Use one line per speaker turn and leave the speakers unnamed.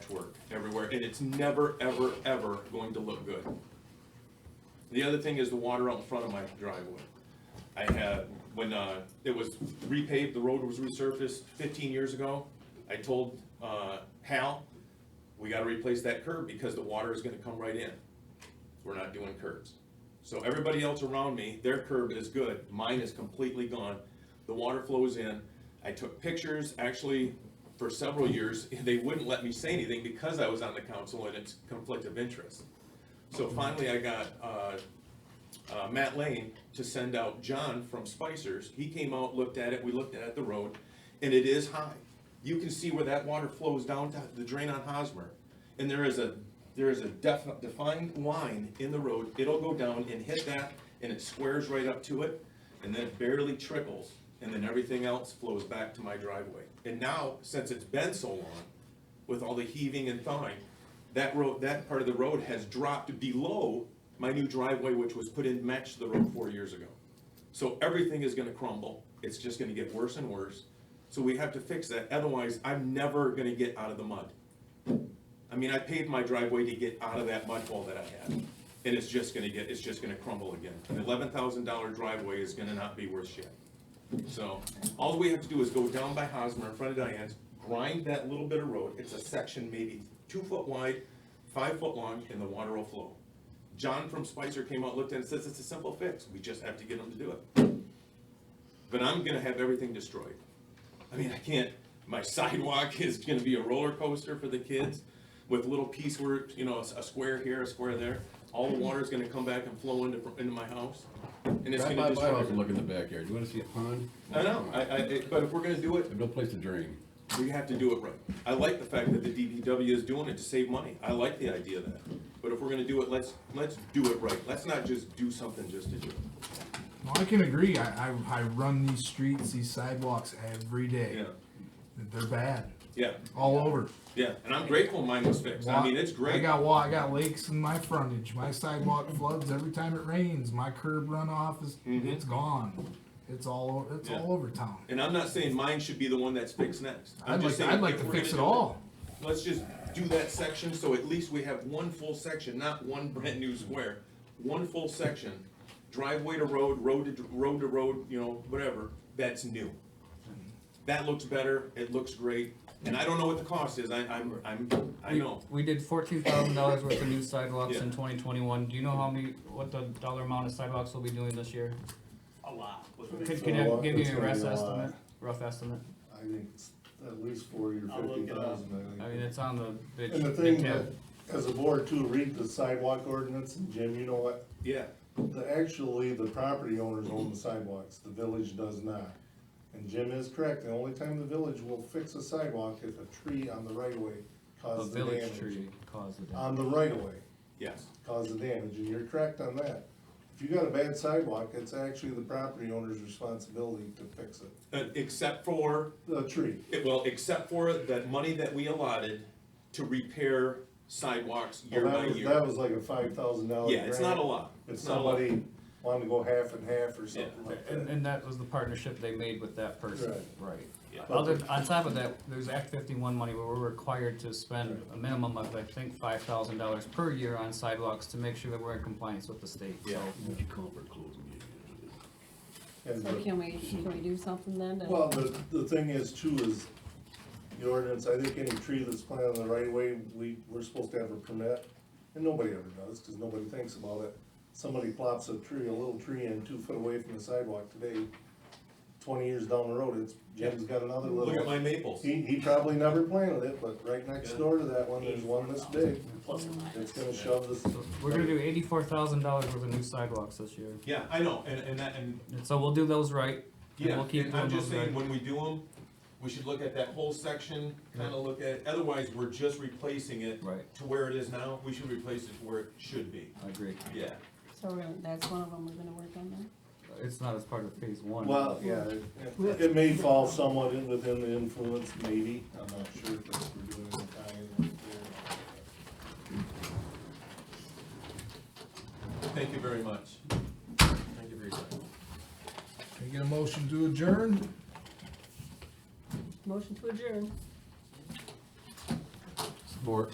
everywhere, and it's never, ever, ever going to look good. The other thing is the water out in front of my driveway. I had, when, uh, it was repaved, the road was resurfaced fifteen years ago, I told, uh, Hal, we gotta replace that curb because the water is gonna come right in. We're not doing curbs. So everybody else around me, their curb is good, mine is completely gone. The water flows in. I took pictures, actually, for several years, they wouldn't let me say anything because I was on the council and it's conflict of interest. So finally, I got, uh, uh, Matt Lane to send out John from Spicer's. He came out, looked at it, we looked at the road, and it is high. You can see where that water flows down to the drain on Hosmer. And there is a, there is a def- defined line in the road. It'll go down and hit that, and it squares right up to it, and then it barely trickles, and then everything else flows back to my driveway. And now, since it's been so long, with all the heaving and thawing, that road, that part of the road has dropped below my new driveway, which was put in, matched the road four years ago. So everything is gonna crumble, it's just gonna get worse and worse, so we have to fix that, otherwise, I'm never gonna get out of the mud. I mean, I paved my driveway to get out of that mud hole that I had, and it's just gonna get, it's just gonna crumble again. An eleven thousand dollar driveway is gonna not be worth shit. So, all we have to do is go down by Hosmer in front of Diane's, grind that little bit of road, it's a section maybe two foot wide, five foot long, and the water will flow. John from Spicer came out, looked at it, says it's a simple fix, we just have to get them to do it. But I'm gonna have everything destroyed. I mean, I can't, my sidewalk is gonna be a roller coaster for the kids with little piecework, you know, a s- a square here, a square there. All the water's gonna come back and flow into, into my house, and it's gonna
Drive by my
destroy
house
everything.
and look in the backyard, you wanna see a pond?
I know, I, I, it- but if we're gonna do it,
There's no place to drain.
we have to do it right. I like the fact that the DPW is doing it to save money. I like the idea of that. But if we're gonna do it, let's, let's do it right. Let's not just do something just to do it.
Well, I can agree. I, I, I run these streets, these sidewalks every day.
Yeah,
They're bad,
yeah,
all over.
yeah. And I'm grateful mine was fixed. I mean, it's
I
great.
got wa- I got lakes in my frontage. My sidewalk floods every time it rains. My curb runoff is it's gone. It's all o- it's
Mm-hmm. Yeah.
all over town.
And I'm not saying mine should be the one that's fixed next. I'm
I'd
just
like-
saying
I'd like
if
to
we're gonna
fix it
do
all.
Let's just do that section, so at least we have one full section, not one brand new square. One full section, driveway to road, road to, road to road, you know, whatever, that's new. That looks better, it looks great, and I don't know what the cost is, I, I'm, I'm, I
We-
know.
We did fourteen thousand dollars worth of new sidewalks
Yeah.
in twenty twenty-one. Do you know how many, what the dollar amount of sidewalks we'll be doing this year?
a lot.
Could,
So
can you
what-
give me
it's
a
gonna
rough
be a lot.
estimate, rough estimate?
I think it's at least forty or
I'll look
fifty
it up.
thousand,
I
I
mean,
think.
it's on the bid.
And the
bid
thing
tab.
that, as a board too, read the sidewalk ordinance, and Jim, you know what?
Yeah,
The, actually, the property owners own the sidewalks, the village does not. And Jim is correct, the only time the village will fix a sidewalk if a tree on the right of way
A
causes the
village
damage.
tree caused the damage.
On the right of way
yes,
caused the damage, and you're correct on that. If you got a bad sidewalk, it's actually the property owner's responsibility to fix it,
Uh, except for,
the tree.
it- well, except for that money that we allotted to repair sidewalks year
Well,
by
Oh, that was,
year.
that was like a five thousand dollar
Yeah, it's not a lot.
If
It's not a lot.
somebody wanted to go half and half or something
Yeah.
like
And,
that.
and that was the partnership they made with that person, right?
Yeah.
Other, on top of that, there's Act fifty-one money where we're required to spend a minimum of, I think, five thousand dollars per year on sidewalks to make sure that we're in compliance with the state, so.
Yeah.
you call for closing
And
So
the-
can we, can we do something then to?
Well, the, the thing is too is, the ordinance, I think any tree that's planted on the right of way, we, we're supposed to have a permit. And nobody ever does, cause nobody thinks about it. Somebody plops a tree, a little tree in two foot away from the sidewalk today, twenty years down the road, it's, Jim's got another little.
Look at my maples.
He, he probably never planted it, but right next door to that one, there's one this big.
Plus or minus.
It's gonna shove this.
We're gonna do eighty-four thousand dollars worth of new sidewalks this year.
Yeah, I know, and, and that, and
And so we'll do those right. and
Yeah,
We'll keep
and I'm
doing
just
those
saying,
right.
when we do them, we should look at that whole section, kinda look at, it. otherwise, we're just replacing it
Right.
to where it is now, we should replace it to where it should be,
I agree.
yeah.
So we're gonna- that's one of them we're gonna work on then?
It's not as part of phase one.
Well, yeah, it- it may fall somewhat in- within the influence, maybe, I'm not sure if it's- we're doing it in time.
Thank you very much. Thank you for your time.
Can I get a motion to adjourn?
Motion to adjourn.
Support.